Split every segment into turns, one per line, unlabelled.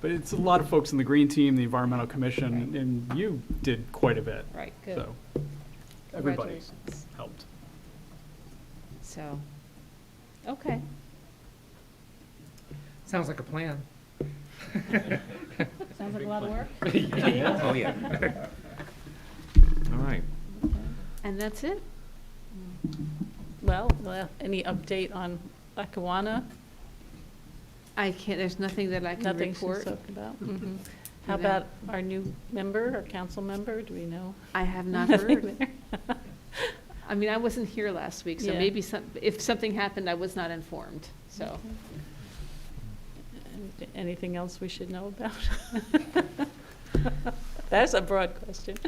But it's a lot of folks in the green team, the environmental commission, and you did quite a bit.
Right, good.
So everybody
Congratulations.
helped.
So, okay.
Sounds like a plan.
Sounds like a lot of work.
Oh, yeah.
All right.
And that's it? Well, well, any update on Lackawanna?
I can't, there's nothing that I can
Nothing
report.
she's talking about?
Mm-hmm.
Mhm. How
No.
about our new member, our council member? Do we know?
I have not
Nothing
heard.
there?
I mean, I wasn't here last week, so
Yeah.
maybe some, if something happened, I was not informed, so.
And Anything else we should know about? That's a broad question.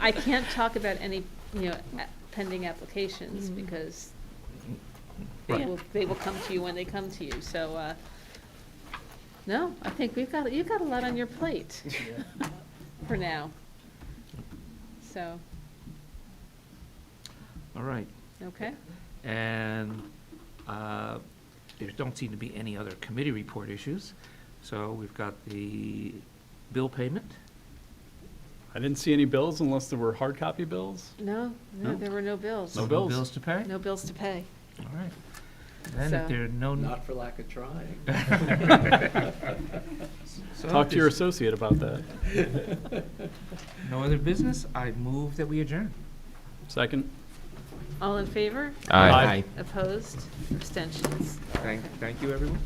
I can't talk about any, you know, a- pending applications
Mhm.
because they
Right.
will, they will come to you when they come to you, so, uh, no, I think we've got, you've got a lot on your plate for now. So,
All right.
okay,
And uh, there don't seem to be any other committee report issues. So we've got the bill payment.
I didn't see any bills unless there were hard copy bills.
no, no,
No.
there were no bills,
No
No
bills.
bills to pay?
no bills to pay.
All right. Then if
So-
there are no.
Not for lack of trying.
so
Talk
if
to your
there's
associate about that.
No other business, I move that we adjourn.
Second?
All in favor?
Aye.
Opposed? Abstentions?
Thank, thank you, everyone.